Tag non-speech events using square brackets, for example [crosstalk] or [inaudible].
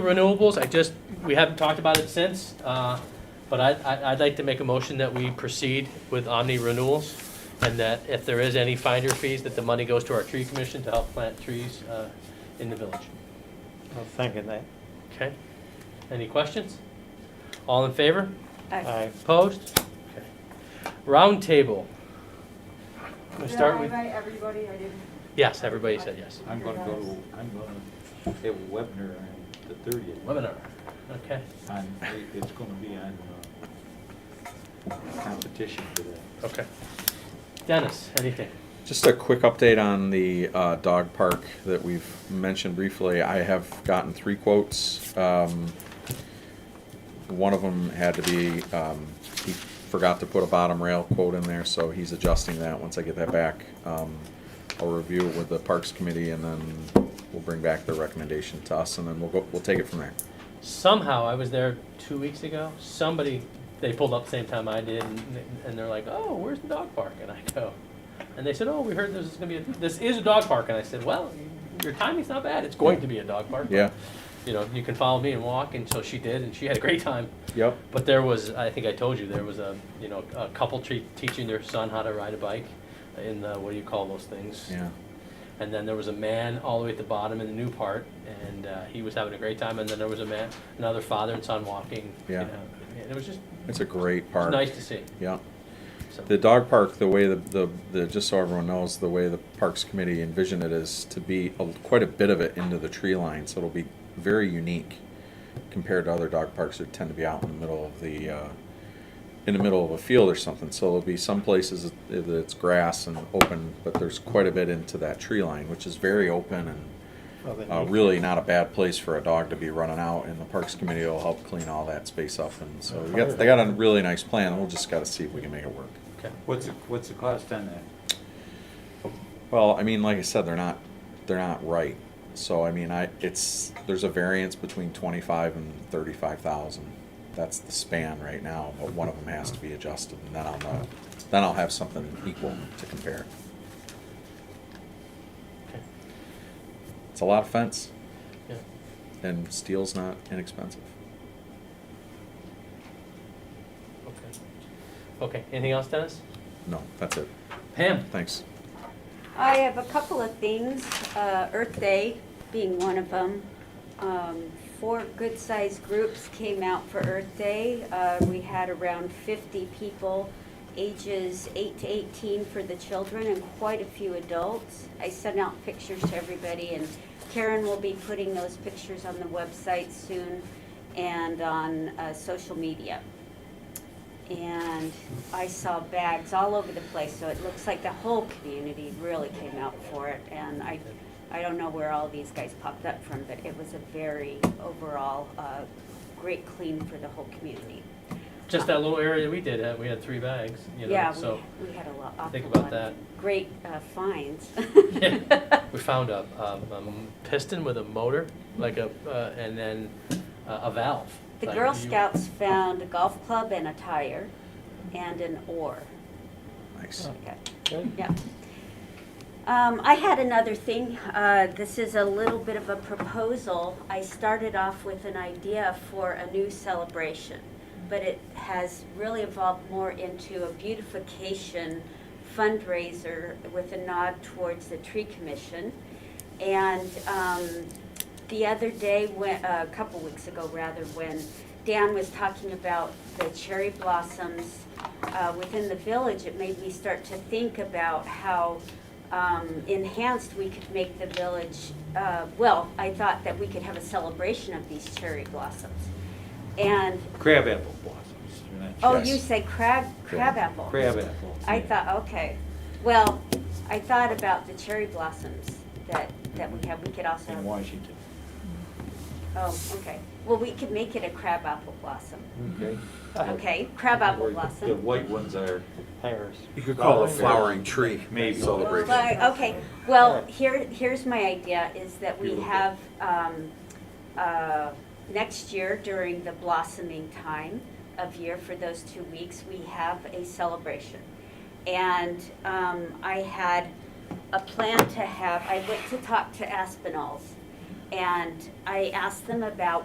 renewables, I just, we haven't talked about it since, uh, but I, I- I'd like to make a motion that we proceed with Omni Renewals, and that if there is any finder fees, that the money goes to our tree commission to help plant trees uh, in the village. I'll second that. Okay? Any questions? All in favor? Uh, Uh, Aye. Opposed? Okay. Roundtable. We Did I start with, invite everybody? I didn't. yes, everybody said yes. I'm gonna go to, I'm gonna have a webinar on the thirtieth. Webinar, okay, On, it- it's gonna be on, uh, competition for that. okay. Dennis, anything? Just a quick update on the uh, dog park that we've mentioned briefly. I have gotten three quotes. Um, One of them had to be, um, he forgot to put a bottom rail quote in there, so he's adjusting that. Once I get that back, um, I'll review it with the Parks Committee and then we'll bring back the recommendation to us and then we'll go, we'll take it from there. somehow I was there two weeks ago. Somebody they pulled up the same time I did, and, and they're like, "Oh, where's the dog park?" And I go, and they said, "Oh, we heard this is gonna be a, this is a dog park." And I said, "Well, your timing's not bad. It's going to be a dog park. Yeah, You know, you can follow me and walk." And so she did, and she had a great time. yep, But there was, I think I told you, there was a you know a couple tre- teaching their son how to ride a bike in the what do you call those things? yeah. And then there was a man all the way at the bottom in the new part, and uh, he was having a great time. And then there was a man, another father and son walking. Yeah. You know, and it was just It's a it great was park. nice to see. Yeah. So, The dog park, the way the, the, the, just so everyone knows, the way the Parks Committee envisioned it is to be a- quite a bit of it into the tree line, so it'll be very unique compared to other dog parks that tend to be out in the middle of the, uh, in the middle of a field or something. So there'll be some places that it's grass and open, but there's quite a bit into that tree line, which is very open and Well, then uh, you- really not a bad place for a dog to be running out, and the Parks Committee will help clean all that space up. And so we got, they got a really nice plan, we'll just gotta see if we can make it work. okay. What's, the- what's the cost on that? Well, I mean, like I said, they're not, they're not right. So I mean, I, it's, there's a variance between twenty-five and thirty-five thousand. That's the span right now, but one of them has to be adjusted and then I'll know, then I'll have something equal to compare. okay. It's a lot of fence Yeah. and steel's not inexpensive. Okay. Okay. Anything else, Dennis? No, that's it. Pam. Thanks. I have a couple of things, uh, Earth Day being one of them. Um, Four good-sized groups came out for Earth Day. Uh, We had around 50 people, ages 8 to 18 for the children and quite a few adults. I sent out pictures to everybody, and Karen will be putting those pictures on the website soon and on uh, social media and I saw bags all over the place, so it looks like the whole community really came out for it, and I, I don't know where all these guys popped up from, but it was a very overall, uh, great clean for the whole community. Just that little area we did. Uh, we had three bags. You know, Yeah, So we, we had a lot, think awful about lot that. of great uh, [laughs] finds. [laughs] [laughs] Yeah. we found a, um, a m- piston with a motor, like a, uh, and then uh, a valve. The Like Girl you- Scouts found a golf club and a tire and an oar. Nice. Okay. Good. Yeah. Um, I had another thing. Uh, this is a little bit of a proposal. I started off with an idea for a new celebration, but it has really evolved more into a beautification fundraiser with a nod towards the tree commission. And, um, the other day, when, a couple weeks ago rather, when Dan was talking about the cherry blossoms uh, within the village, it made me start to think about how um, enhanced we could make the village. uh, Well, I thought that we could have a celebration of these cherry blossoms. And, Crab apple blossoms, you're not- oh, Yes. you say crab, crab apple? crab apple. I thought, okay, well, I thought about the cherry blossoms that, that we have. We could also In have Washington. Oh, okay. Well, we could make it a crab apple blossom. Okay. Okay, crab apple Or The blossom. white ones are. Pears. You could call it a flowering Flowering. tree. Maybe. Celebration. But, uh, okay, well, here, here's my idea, is that we Beautiful. have, um, uh, next year during the blossoming time of year for those two weeks, we have a celebration. And, um, I had a plan to have, I went to talk to Aspinalls, and I asked them about